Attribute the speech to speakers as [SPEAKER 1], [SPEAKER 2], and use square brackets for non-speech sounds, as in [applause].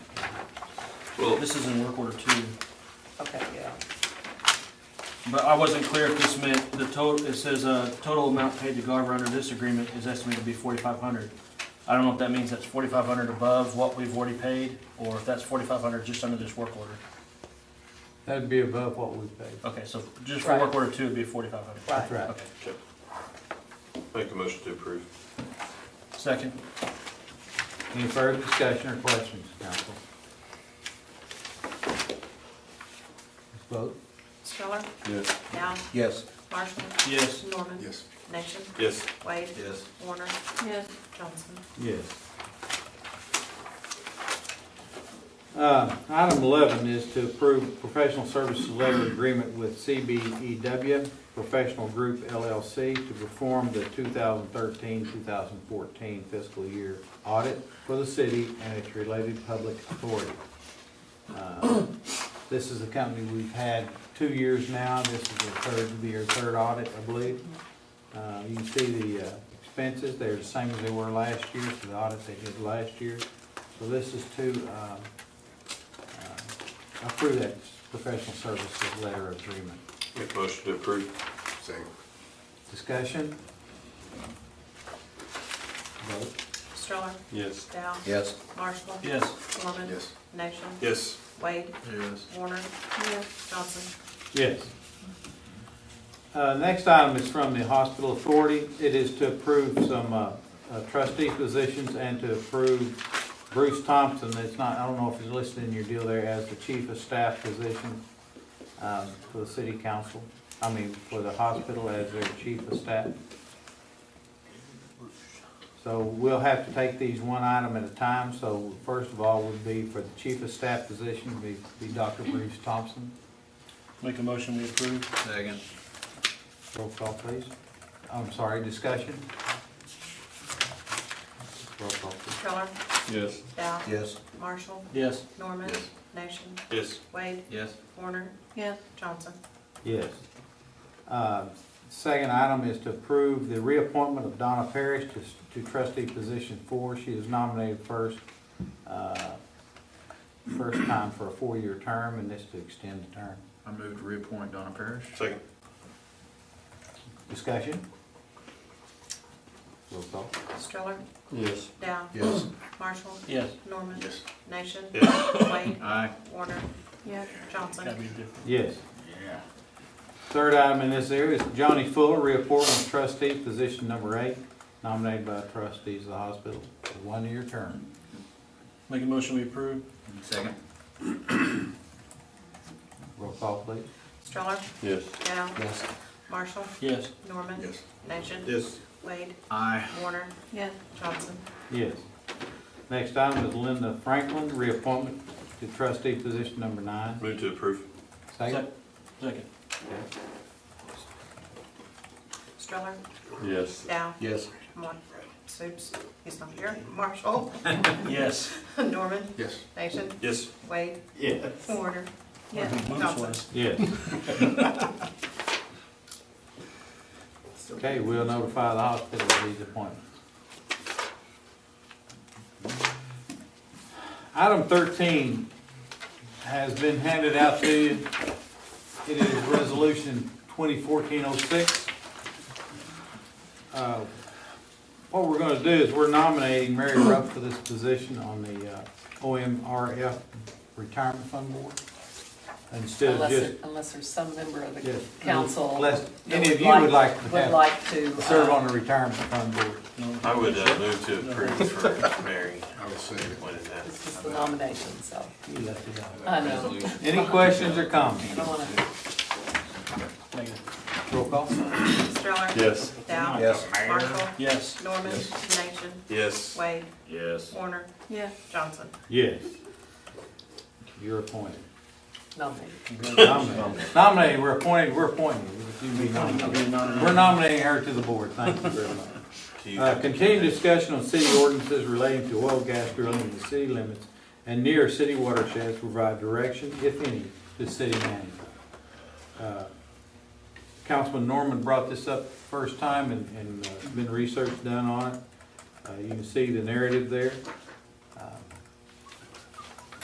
[SPEAKER 1] Well,
[SPEAKER 2] This is in work order two.
[SPEAKER 3] Okay, yeah.
[SPEAKER 2] But I wasn't clear if this meant the total, it says, uh, total amount paid to Garver under this agreement is estimated to be forty-five hundred. I don't know if that means that's forty-five hundred above what we've already paid, or if that's forty-five hundred just under this work order.
[SPEAKER 4] That'd be above what we paid.
[SPEAKER 2] Okay, so just for work
[SPEAKER 3] Right.
[SPEAKER 2] order two, it'd be forty-five hundred.
[SPEAKER 3] Right.
[SPEAKER 4] That's right.
[SPEAKER 2] Okay,
[SPEAKER 1] okay. Make a motion to approve.
[SPEAKER 2] second,
[SPEAKER 4] Any further discussion or questions, council? Let's vote.
[SPEAKER 5] Schiller,
[SPEAKER 1] Yes.
[SPEAKER 5] Dow,
[SPEAKER 6] Yes.
[SPEAKER 5] Marshall,
[SPEAKER 2] yes,
[SPEAKER 5] Norman,
[SPEAKER 6] Yes.
[SPEAKER 5] Nation,
[SPEAKER 1] Yes.
[SPEAKER 5] Wade,
[SPEAKER 6] Yes.
[SPEAKER 5] Warner,
[SPEAKER 3] Yes.
[SPEAKER 5] Johnson.
[SPEAKER 4] Yes. Uh, Item 11 is to approve professional services letter agreement with CBEW Professional Group LLC to perform the 2013-2014 fiscal year audit for the city and its related public authority. Uh, This is a company we've had two years now. This is their third, their third audit, I believe. Uh, You can see the uh, expenses, they're the same as they were last year, for the audit they did last year. So this is to um, uh, approve that professional services letter of agreement.
[SPEAKER 1] Make a motion to approve.
[SPEAKER 6] Second.
[SPEAKER 4] Discussion? Vote.
[SPEAKER 5] Schiller,
[SPEAKER 1] Yes.
[SPEAKER 5] Dow,
[SPEAKER 6] Yes.
[SPEAKER 5] Marshall,
[SPEAKER 2] yes.
[SPEAKER 5] Norman,
[SPEAKER 6] Yes.
[SPEAKER 5] Nation,
[SPEAKER 1] Yes.
[SPEAKER 5] Wade,
[SPEAKER 6] Yes.
[SPEAKER 5] Warner, Johnson.
[SPEAKER 4] Yes. Uh, Next item is from the hospital authority. It is to approve some uh, uh, trustee positions and to approve Bruce Thompson. It's not, I don't know if he's listed in your deal there as the chief of staff position um, for the city council, I mean, for the hospital as their chief of staff. So we'll have to take these one item at a time. So first of all would be for the chief of staff position, be be Dr. Bruce Thompson.
[SPEAKER 2] Make a motion, we approve,
[SPEAKER 6] Second.
[SPEAKER 4] Roll call, please. I'm sorry, discussion? Roll call, please.
[SPEAKER 5] Schiller,
[SPEAKER 1] Yes.
[SPEAKER 5] Dow,
[SPEAKER 6] Yes.
[SPEAKER 5] Marshall,
[SPEAKER 2] yes.
[SPEAKER 5] Norman,
[SPEAKER 6] Yes.
[SPEAKER 5] Nation,
[SPEAKER 1] Yes.
[SPEAKER 5] Wade,
[SPEAKER 6] Yes.
[SPEAKER 5] Warner. Yes. Johnson.
[SPEAKER 4] Yes. Uh, Second item is to approve the reappointment of Donna Parrish to- to trustee position four. She is nominated first, uh, first time for a four-year term, and this to extend the term.
[SPEAKER 6] I move to reappoint Donna Parrish.
[SPEAKER 1] Second.
[SPEAKER 4] Discussion? Roll call.
[SPEAKER 5] Schiller,
[SPEAKER 1] Yes.
[SPEAKER 5] Dow,
[SPEAKER 6] Yes.
[SPEAKER 5] Marshall,
[SPEAKER 2] Yes.
[SPEAKER 5] Norman,
[SPEAKER 6] Yes.
[SPEAKER 5] Nation,
[SPEAKER 1] Yes.
[SPEAKER 5] Wade,
[SPEAKER 6] Aye.
[SPEAKER 5] Warner. Yes.
[SPEAKER 2] Gotta
[SPEAKER 5] Johnson.
[SPEAKER 2] be different.
[SPEAKER 4] Yes.
[SPEAKER 6] Yeah.
[SPEAKER 4] Third item in this area is Johnny Fuller, reappointment of trustee, position number eight, nominated by trustees of the hospital, for one-year term.
[SPEAKER 2] Make a motion, we approve,
[SPEAKER 6] Second.
[SPEAKER 4] Roll call, please.
[SPEAKER 5] Schiller,
[SPEAKER 1] Yes.
[SPEAKER 5] Dow,
[SPEAKER 6] Yes.
[SPEAKER 5] Marshall,
[SPEAKER 2] yes.
[SPEAKER 5] Norman,
[SPEAKER 6] Yes.
[SPEAKER 5] Nation,
[SPEAKER 1] Yes.
[SPEAKER 5] Wade,
[SPEAKER 6] Aye.
[SPEAKER 5] Warner. Yes. Johnson.
[SPEAKER 4] Yes. Next item is Linda Franklin, reappointment to trustee, position number nine.
[SPEAKER 1] Move to approve.
[SPEAKER 4] Second?
[SPEAKER 2] Sec- Second,
[SPEAKER 5] Stroller,
[SPEAKER 1] Yes.
[SPEAKER 5] Dow,
[SPEAKER 6] Yes.
[SPEAKER 5] Mon, Supes, he's not here, Marshall, [laughs]
[SPEAKER 2] yes.
[SPEAKER 5] Norman,
[SPEAKER 6] Yes.
[SPEAKER 5] Nation,
[SPEAKER 1] Yes.
[SPEAKER 5] Wade,
[SPEAKER 4] Yes.
[SPEAKER 5] Warner. Yes.
[SPEAKER 2] Moves
[SPEAKER 5] Johnson.
[SPEAKER 2] was.
[SPEAKER 4] Yes. Okay, we'll notify the hospital of these appointments. Item thirteen has been handed out to you. It is resolution twenty fourteen oh six. Uh, What we're gonna do is we're nominating Mary Rupp for this position on the uh, OMRF Retirement Fund Board. Instead of
[SPEAKER 3] Unless,
[SPEAKER 4] just
[SPEAKER 3] there- unless there's some member of
[SPEAKER 4] Yes.
[SPEAKER 3] the council.
[SPEAKER 4] Unless
[SPEAKER 3] that
[SPEAKER 4] any of you would like to
[SPEAKER 3] Would
[SPEAKER 4] have,
[SPEAKER 3] like to. uh,
[SPEAKER 4] serve on the retirement fund board.
[SPEAKER 2] No.
[SPEAKER 1] I would uh, move to approve for Mary.
[SPEAKER 6] I will say it.
[SPEAKER 1] When is that?
[SPEAKER 3] This is the nomination, so
[SPEAKER 4] You left it out.
[SPEAKER 3] I know.
[SPEAKER 4] Any questions or comments?
[SPEAKER 3] I don't want to.
[SPEAKER 2] Negative.
[SPEAKER 4] Roll call?
[SPEAKER 5] Stroller.
[SPEAKER 1] Yes.
[SPEAKER 5] Dow.
[SPEAKER 6] Yes.
[SPEAKER 5] Marshall,
[SPEAKER 2] Yes.
[SPEAKER 5] Norman, Nation,
[SPEAKER 1] Yes.
[SPEAKER 5] Wade,
[SPEAKER 6] Yes.
[SPEAKER 5] Warner. Yeah. Johnson.
[SPEAKER 4] Yes. You're appointed.
[SPEAKER 3] Nominate.
[SPEAKER 4] Nominated, Nominated. we're appointed, we're appointed. You be nominated. We're nominating her to the board, thank you very much.
[SPEAKER 1] Do you-
[SPEAKER 4] Uh, Continued discussion on city ordinances relating to oil, gas drilling in the city limits and near city watersheds to provide direction, if any, to city manager. Uh, Councilman Norman brought this up first time and, and uh, been research done on it. Uh, You can see the narrative there.